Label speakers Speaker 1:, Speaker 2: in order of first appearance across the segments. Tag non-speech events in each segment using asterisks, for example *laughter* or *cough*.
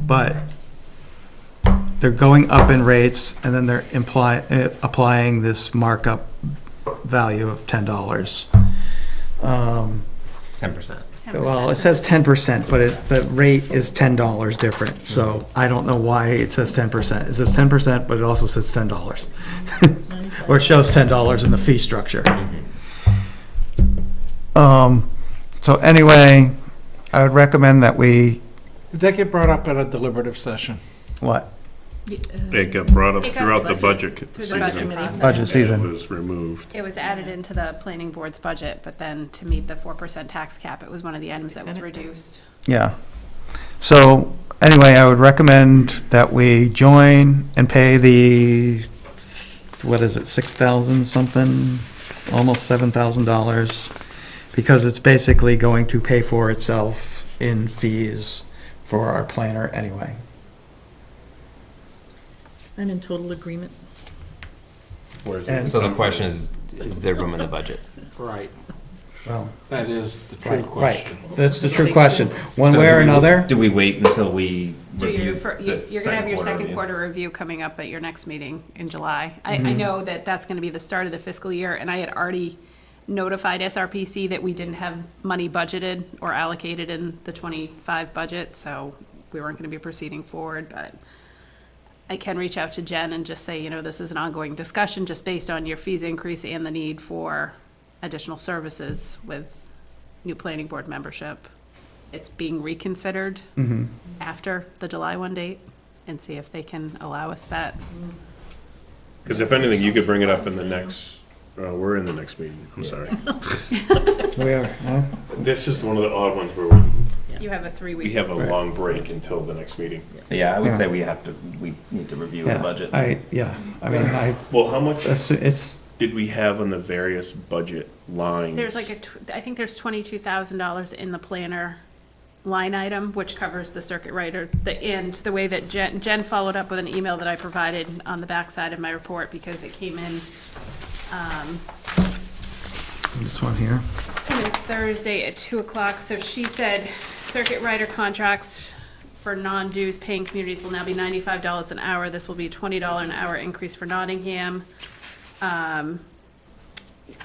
Speaker 1: but they're going up in rates and then they're imply, eh, applying this markup value of ten dollars. Um,
Speaker 2: Ten percent.
Speaker 1: Well, it says ten percent, but it's, the rate is ten dollars different, so I don't know why it says ten percent. It says ten percent, but it also says ten dollars. Or it shows ten dollars in the fee structure. Um, so anyway, I would recommend that we,
Speaker 3: Did that get brought up at a deliberative session?
Speaker 1: what,
Speaker 4: It got brought up
Speaker 5: It got
Speaker 4: throughout the
Speaker 5: budget-
Speaker 4: budget
Speaker 5: through the
Speaker 4: season.
Speaker 5: budget committee
Speaker 4: and
Speaker 1: budget
Speaker 5: process.
Speaker 4: It
Speaker 1: season?
Speaker 4: was removed.
Speaker 5: It was added into the planning board's budget, but then to meet the 4% tax cap, it was one of the items that was reduced.
Speaker 1: Yeah. So anyway, I would recommend that we join and pay the, s- what is it, six thousand something, almost seven thousand dollars, because it's basically going to pay for itself in fees for our planner anyway.
Speaker 6: I'm in total agreement.
Speaker 1: And,
Speaker 2: So the question is, is there room in the budget?
Speaker 3: Right.
Speaker 1: well,
Speaker 3: That is the true
Speaker 1: right, right.
Speaker 3: question.
Speaker 1: That's the true question. One way or
Speaker 2: So do we-
Speaker 1: another,
Speaker 2: Do we wait until we
Speaker 5: So
Speaker 2: review?
Speaker 5: you're, for- you-
Speaker 2: the
Speaker 5: you're gonna have your second
Speaker 2: review?
Speaker 5: quarter review coming up at your next meeting in July. I, I know that that's gonna be the start of the fiscal year, and I had already notified SRPC that we didn't have money budgeted or allocated in the twenty-five budget, so we weren't gonna be proceeding forward, but I can reach out to Jen and just say, you know, this is an ongoing discussion, just based on your fees increase and the need for additional services with new planning board membership. It's being reconsidered
Speaker 4: Mm-hmm.
Speaker 5: after the July one date and see if they can allow us that.
Speaker 4: Because if anything, you could bring it up in the next, uh, we're in the next meeting, I'm *laughs* sorry.
Speaker 1: we are, huh?
Speaker 4: This is one of the odd ones where we-
Speaker 5: You have a three-week.
Speaker 4: we have a long break until the next meeting.
Speaker 2: Yeah, I would
Speaker 1: Yeah.
Speaker 2: say we have to, we need to review the
Speaker 1: yeah,
Speaker 2: budget.
Speaker 1: I, yeah, I mean, I,
Speaker 4: Well, how much
Speaker 1: it's- it's,
Speaker 4: did we have on the various budget lines?
Speaker 5: There's like a, tw- I think there's twenty-two thousand dollars in the planner line item, which covers the circuit rider, the end, the way that Jen, Jen followed up with an email that I provided on the backside of my report because it came in, um,
Speaker 1: this one here.
Speaker 5: came in Thursday at two o'clock, so she said circuit rider contracts for non-dues paying communities will now be ninety-five dollars an hour. This will be twenty dollar an hour increase for Nottingham. Um,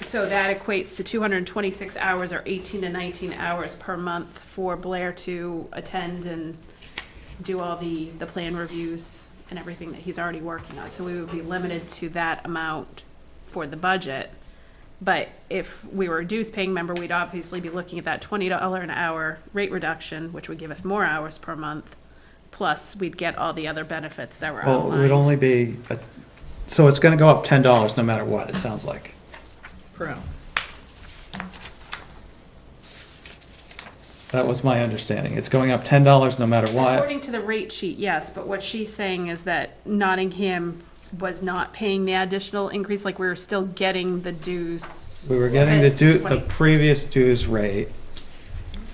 Speaker 5: So that equates to two hundred and twenty-six hours or eighteen to nineteen hours per month for Blair to attend and do all the, the plan reviews and everything that he's already working on. So we would be limited to that amount for the budget. But if we were a dues paying member, we'd obviously be looking at that twenty dollar an hour rate reduction, which would give us more hours per month. Plus, we'd get all the other benefits that were
Speaker 1: Well, it would only
Speaker 5: outlined.
Speaker 1: be, a- so it's gonna go up ten dollars no matter what, it sounds like.
Speaker 6: Per hour.
Speaker 1: That was my understanding. It's going up ten dollars no matter what.
Speaker 5: According to the rate sheet, yes, but what she's saying is that Nottingham was not paying the additional increase, like we were still getting the dues.
Speaker 1: We were getting the due, the
Speaker 5: Twenty.
Speaker 1: previous dues rate.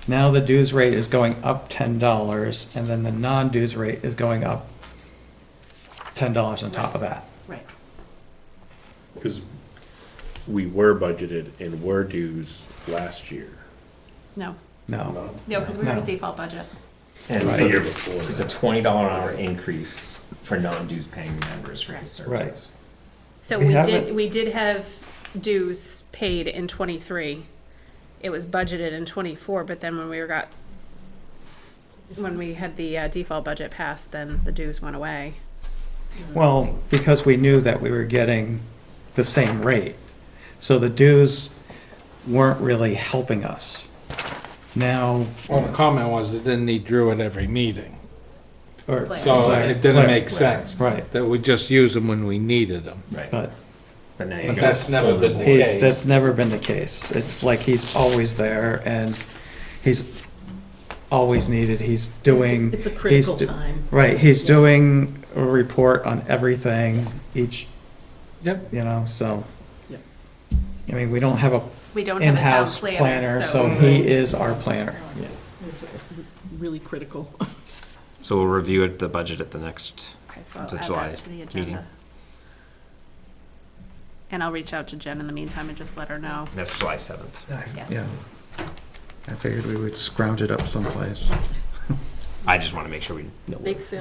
Speaker 1: Now the dues rate is going up ten dollars and then the non-dues rate is going up ten dollars on top of that.
Speaker 5: Right.
Speaker 4: Because we were budgeted and were dues last year.
Speaker 5: No,
Speaker 1: No,
Speaker 5: no, because we were in
Speaker 1: No.
Speaker 5: default budget.
Speaker 2: And
Speaker 4: The year
Speaker 2: so
Speaker 4: before.
Speaker 2: it's a twenty dollar an hour increase for non-dues paying members for these
Speaker 1: Right.
Speaker 2: services.
Speaker 5: So
Speaker 1: We
Speaker 5: we did,
Speaker 1: haven't-
Speaker 5: we did have dues paid in twenty-three. It was budgeted in twenty-four, but then when we were got, when we had the uh, default budget passed, then the dues went away.
Speaker 1: well, because we knew that we were getting the same rate. So the dues weren't really helping us. Now,
Speaker 3: Well, the comment was it didn't need Drew at every meeting,
Speaker 1: or.
Speaker 3: so
Speaker 1: Blair-
Speaker 3: it didn't
Speaker 1: Blair-
Speaker 3: make sense.
Speaker 1: Right.
Speaker 3: That we just use them when we needed them.
Speaker 2: Right.
Speaker 1: But
Speaker 2: But now you
Speaker 1: But
Speaker 2: go
Speaker 3: that's never
Speaker 2: full
Speaker 3: been
Speaker 2: reward.
Speaker 3: the case.
Speaker 1: he's, that's never been the case. It's like he's always there and he's always needed. He's doing.
Speaker 6: It's a
Speaker 1: he's
Speaker 6: critical
Speaker 1: do-
Speaker 6: time.
Speaker 1: Right, he's doing a report on everything each,
Speaker 3: Yep.
Speaker 1: you know, so.
Speaker 6: Yep.
Speaker 1: I mean, we don't have a
Speaker 5: We don't have a town
Speaker 1: in-house
Speaker 5: planner,
Speaker 1: planner, so
Speaker 5: so.
Speaker 1: he is our planner.
Speaker 6: It's really critical.
Speaker 2: So we'll review it, the budget at the next,
Speaker 5: Okay, so I'll
Speaker 2: to
Speaker 5: add
Speaker 2: July
Speaker 5: that to the
Speaker 2: meeting.
Speaker 5: agenda. And I'll reach out to Jen in the meantime and just let her know.
Speaker 2: that's July seventh.
Speaker 1: I-
Speaker 5: Yes.
Speaker 1: Yeah, I figured we would scrounge it up someplace.
Speaker 7: I just want to make sure we know. what-
Speaker 2: Makes sense.